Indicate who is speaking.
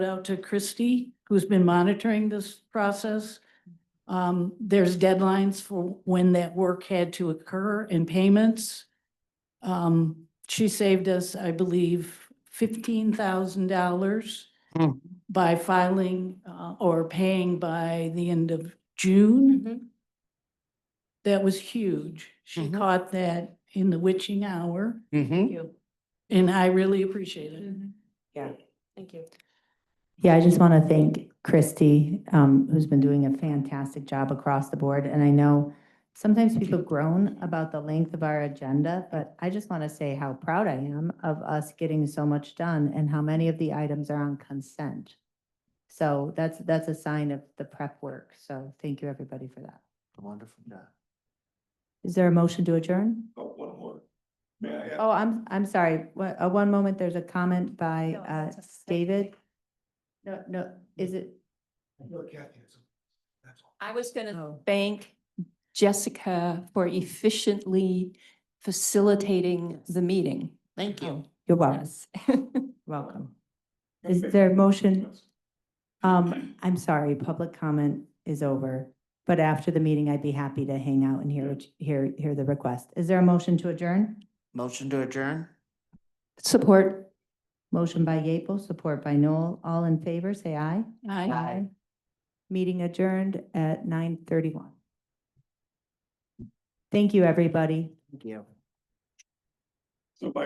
Speaker 1: out to Christie, who's been monitoring this process. Um, there's deadlines for when that work had to occur and payments. Um, she saved us, I believe, fifteen thousand dollars
Speaker 2: Hmm.
Speaker 1: by filing, uh, or paying by the end of June. That was huge. She
Speaker 2: Mhm.
Speaker 1: caught that in the witching hour
Speaker 2: Mm-hmm.
Speaker 3: you.
Speaker 1: and I really appreciate it.
Speaker 3: Yeah, Mm-hmm. thank you.
Speaker 4: Yeah, I just want to thank Christy, um, who's been doing a fantastic job across the board. And I know sometimes people groan about the length of our agenda, but I just want to say how proud I am of us getting so much done and how many of the items are on consent. So that's, that's a sign of the prep work. So thank you, everybody, for that.
Speaker 2: Wonderful job.
Speaker 4: Is there a motion to adjourn?
Speaker 5: Oh, one more. May I ask?
Speaker 4: Oh, I'm, I'm sorry. What, uh, one moment, there's a comment by, uh, David. No, no, is it?
Speaker 5: Look, Kathy, it's- that's all.
Speaker 3: I was gonna
Speaker 4: Oh.
Speaker 3: thank Jessica for efficiently facilitating the meeting.
Speaker 2: Thank you.
Speaker 4: You're welcome.
Speaker 3: Yes.
Speaker 4: Welcome. Is there a motion? Um, I'm sorry, public comment is over, but after the meeting, I'd be happy to hang out and hear, what you- hear, hear the request. Is there a motion to adjourn?
Speaker 2: Motion to adjourn?
Speaker 3: Support.
Speaker 4: Motion by Yeaple, support by Noel. All in favor, say aye.
Speaker 1: Aye.
Speaker 4: Meeting adjourned at nine thirty-one. Thank you, everybody.
Speaker 2: Thank you.